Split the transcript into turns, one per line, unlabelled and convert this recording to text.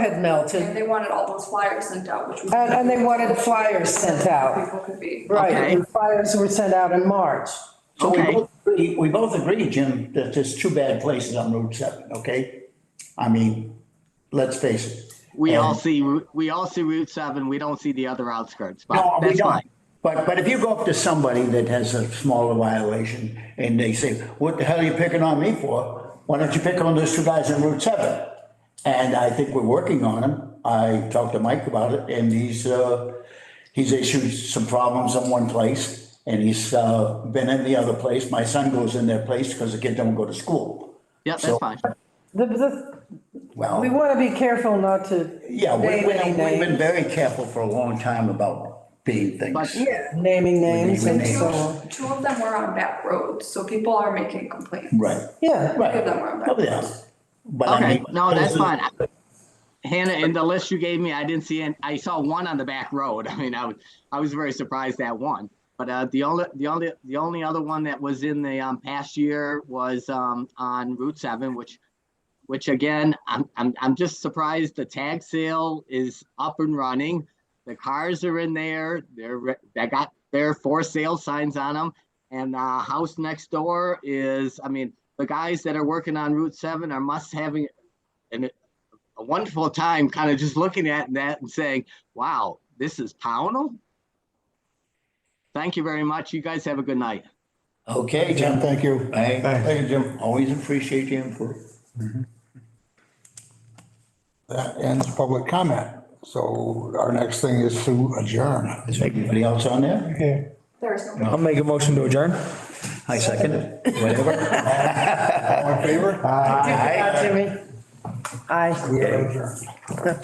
melted.
And they wanted all those flyers sent out, which was.
And, and they wanted flyers sent out.
People could be.
Right,
Okay.
and flyers were sent out in March.
So we
Okay.
both agree- We both agree, Jim, that there's two bad places on Route 7, okay? I mean, let's face it.
We all
And-
see, Ru- we all see Route 7. We don't see the other outskirts,
No,
but
we
Oh, that's
don't.
fine.
But, but if you go up to somebody that has a smaller violation and they say, what the hell are you picking on me for? Why don't you pick on those two guys on Route 7? And I think we're working on them. I talked to Mike about it and he's, uh, he's issued some problems in one place and he's, uh, been in the other place. My son goes in their place because the kid don't go to school.
Yep, that's
So-
fine.
The, the,
Well.
we want to be careful not to,
Yeah, we-
Name,
we-
name,
we've been
name.
very careful for a long time about being things.
But-
naming names and
name
so on.
Two two of them were on back roads, so people are making complaints.
Right,
Yeah.
right.
Give them room.
Oh, yeah. But I
Okay,
mean-
no, that's fine. Hannah, in the list you gave me, I didn't see, any I saw one on the back road. I mean, I was, I was very surprised at one. But uh, the only, the only, the only other one that was in the um, past year was um, on Route 7, which, which again, I'm, I'm, I'm just surprised the tag sale is up and running. The cars are in there, they're, re- they got their for sale signs on them. And the house next door is, I mean, the guys that are working on Route 7 are must having an, a wonderful time kind of just looking at that and saying, wow, this is Pownell? Thank you very much. You guys have a good night.
Okay, Jim, thank you. Hey, Thank you, Jim. Always appreciate your input.
That ends public comment. So our next thing is to adjourn.
Is there anybody else on there?
There's no.
I'll make a motion to adjourn.
I second it. Whatever.
All in favor?
Jimmy. Aye.
We are adjourned.